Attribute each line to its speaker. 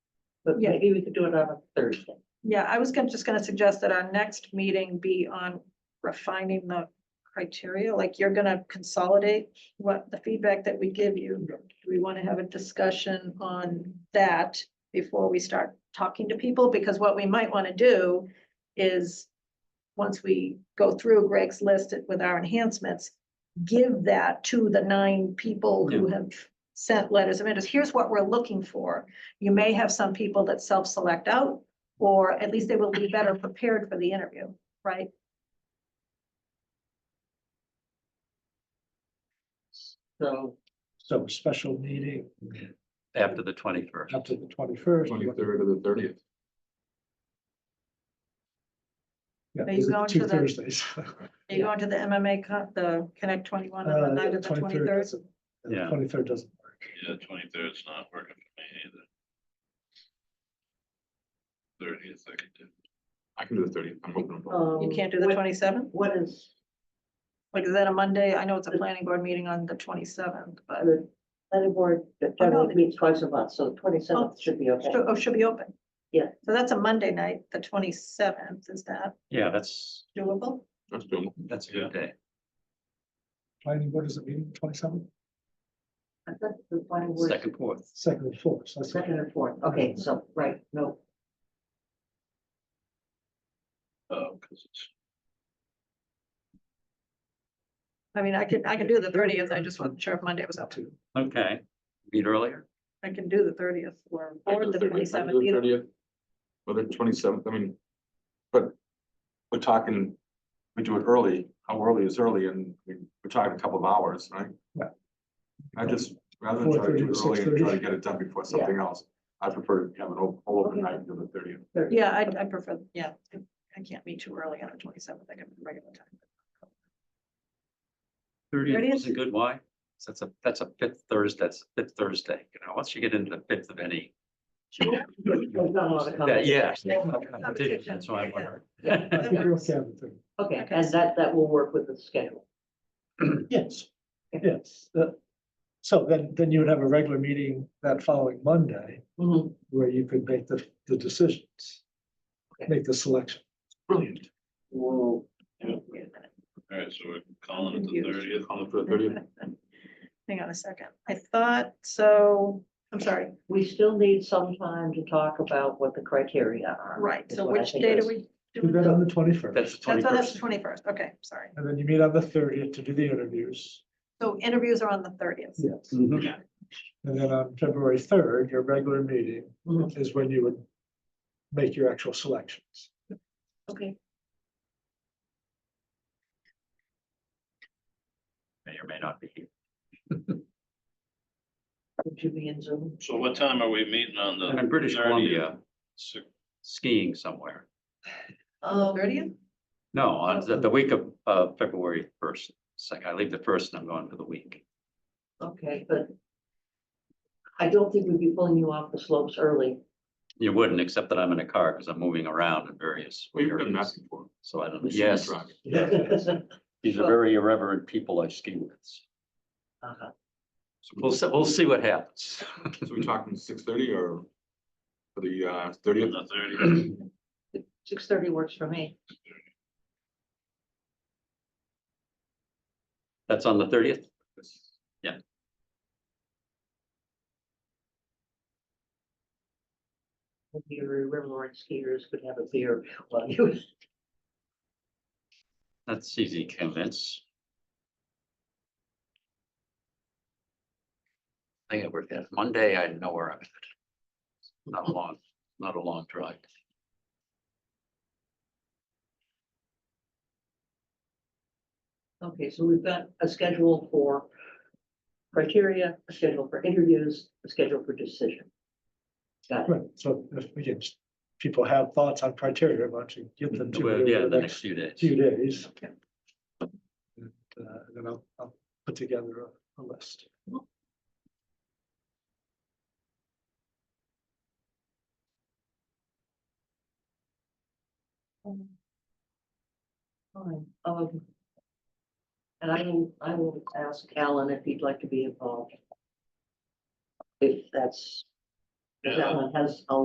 Speaker 1: But
Speaker 2: Yeah.
Speaker 1: maybe we could do it on a Thursday.
Speaker 2: Yeah, I was gonna, just gonna suggest that our next meeting be on refining the criteria, like you're gonna consolidate what the feedback that we give you. Do we wanna have a discussion on that before we start talking to people? Because what we might wanna do is, once we go through Greg's list with our enhancements, give that to the nine people who have sent letters of interest. Here's what we're looking for. You may have some people that self-select out, or at least they will be better prepared for the interview, right?
Speaker 1: So
Speaker 3: So a special meeting
Speaker 4: after the twenty-first.
Speaker 3: up to the twenty-first.
Speaker 5: Twenty-third or the thirtieth.
Speaker 3: Yeah,
Speaker 2: Are you going to
Speaker 3: two
Speaker 2: the-
Speaker 3: Thursdays.
Speaker 2: Are you going to the MMA, con- the Connect twenty-one
Speaker 3: Uh,
Speaker 2: on the night of the twenty-third?
Speaker 4: Yeah.
Speaker 3: Twenty-third doesn't work.
Speaker 6: Yeah, twenty-third's not working for me either. Thirtieth, I could do.
Speaker 5: I can do the thirtieth. I'm open.
Speaker 1: um,
Speaker 2: You can't do the
Speaker 1: what-
Speaker 2: twenty-seventh?
Speaker 1: What is
Speaker 2: Like, is that a Monday? I know it's a planning board meeting on the twenty-seventh, but,
Speaker 1: uh, the planning board that generally
Speaker 2: they-
Speaker 1: meets twice a month, so twenty seventh should be okay.
Speaker 2: oh, should be open.
Speaker 1: Yeah.
Speaker 2: So that's a Monday night, the twenty-seventh, is that
Speaker 4: Yeah, that's,
Speaker 2: doable?
Speaker 5: That's doable.
Speaker 4: that's a good day.
Speaker 3: Planning board is a meeting, twenty-seventh,
Speaker 1: I thought the planning board-
Speaker 4: Second, fourth.
Speaker 3: second and fourth. so that's-
Speaker 1: Second and fourth, okay, so, right, no,
Speaker 6: Oh, because it's,
Speaker 2: I mean, I could, I can do the thirtieth, I just wasn't sure if Monday was up to,
Speaker 4: Okay, meet earlier.
Speaker 2: I can do the thirtieth or,
Speaker 5: I
Speaker 2: or
Speaker 5: can do
Speaker 2: the
Speaker 5: the 30th. I can
Speaker 2: twenty-seventh
Speaker 5: do the
Speaker 2: either.
Speaker 5: 30th. Or the twenty-seventh, I mean, but we're talking, we do it early. How early is early? And we- we're talking a couple of hours, right?
Speaker 3: Yeah.
Speaker 5: I just, rather than try to do
Speaker 3: 4:30 to
Speaker 5: it early and try
Speaker 3: 6:30.
Speaker 5: to get it done before something else, I prefer to have an o- open night until the thirtieth.
Speaker 1: third.
Speaker 2: Yeah, I, I prefer, yeah, I can't meet too early on the twenty-seventh, I can regular time.
Speaker 4: Thirtieth is
Speaker 2: 30th?
Speaker 4: a good why. So That's a, that's a fifth Thursday, that's fifth Thursday, you know, once you get into the fifth of any.
Speaker 1: There's not a lot of
Speaker 4: That,
Speaker 1: comments.
Speaker 4: yeah.
Speaker 2: Competition.
Speaker 4: That's why I wonder.
Speaker 3: I think we're okay on the third.
Speaker 1: Okay,
Speaker 2: Okay.
Speaker 1: and that, that will work with the schedule.
Speaker 3: Yes,
Speaker 1: Okay.
Speaker 3: yes. that- So then, then you would have a regular meeting that following Monday
Speaker 2: Mm-hmm.
Speaker 1: Mhm.
Speaker 3: where you could make the, the decisions.
Speaker 1: Okay.
Speaker 3: Make the selection.
Speaker 5: Brilliant.
Speaker 1: Whoa.
Speaker 6: all right, so we're calling it the
Speaker 1: Confused.
Speaker 6: thirtieth.
Speaker 5: Call it for the thirtieth.
Speaker 2: Hang on a second, I thought, so, I'm sorry,
Speaker 1: We still need some time to talk about what the criteria are.
Speaker 2: right,
Speaker 1: is
Speaker 2: so
Speaker 1: what I
Speaker 2: which
Speaker 1: think
Speaker 2: date
Speaker 1: is-
Speaker 2: are we?
Speaker 3: Do
Speaker 2: doing?
Speaker 3: that on
Speaker 2: That's,
Speaker 3: the twenty-first.
Speaker 4: That's the
Speaker 2: oh, that's
Speaker 4: twenty-first.
Speaker 2: the twenty-first, okay, sorry.
Speaker 3: And then you meet on the thirtieth to do the interviews.
Speaker 2: So interviews are on the thirtieth,
Speaker 3: Yes.
Speaker 4: Mhm.
Speaker 3: And then on February third, your regular meeting
Speaker 1: Mhm.
Speaker 3: is when you would make your actual selections.
Speaker 2: okay,
Speaker 4: May or may not be here.
Speaker 1: Would you be in Zoom?
Speaker 6: So what time are we meeting on the?
Speaker 4: I'm in British
Speaker 6: 30th?
Speaker 4: Columbia
Speaker 6: Six-
Speaker 4: skiing somewhere.
Speaker 1: Um,
Speaker 2: thirtieth,
Speaker 4: No, on the, the week of, uh, February first. It's like I leave the first and I'm gone for the week.
Speaker 1: Okay, but I don't think we'd be pulling you off the slopes early.
Speaker 4: You wouldn't, except that I'm in a car because I'm moving around in various
Speaker 5: Well, you've been
Speaker 4: areas.
Speaker 5: asking for. it.
Speaker 4: So I don't,
Speaker 5: You've seen me
Speaker 4: yes,
Speaker 5: driving.
Speaker 1: Uh-huh.
Speaker 4: these are very irreverent people I ski with.
Speaker 5: So
Speaker 4: We'll, se- we'll see what happens.
Speaker 5: So we talking six thirty or for the uh thirtieth?
Speaker 6: The thirtieth,
Speaker 1: Six thirty works for me.
Speaker 4: That's on the thirtieth.
Speaker 1: Hope Your Riverline skiers could have a beer while you.
Speaker 4: That's easy to convince. I gotta work that. Monday, I know where I'm at. Not a long, not a long drive.
Speaker 1: Okay, so we've got a schedule for criteria, a schedule for interviews, a schedule for decision. Got it.
Speaker 3: Right, so if, again, just people have thoughts on criteria, why don't you give them to
Speaker 4: Well,
Speaker 3: me
Speaker 4: Yeah, the
Speaker 3: over the
Speaker 4: next
Speaker 3: next
Speaker 4: few days.
Speaker 3: few days?
Speaker 2: Okay.
Speaker 3: And uh, then I'll, I'll put together a, a list.
Speaker 1: Fine, um. And I will, I will ask Alan if he'd like to be involved. If that's, if
Speaker 6: yeah,
Speaker 1: Alan has a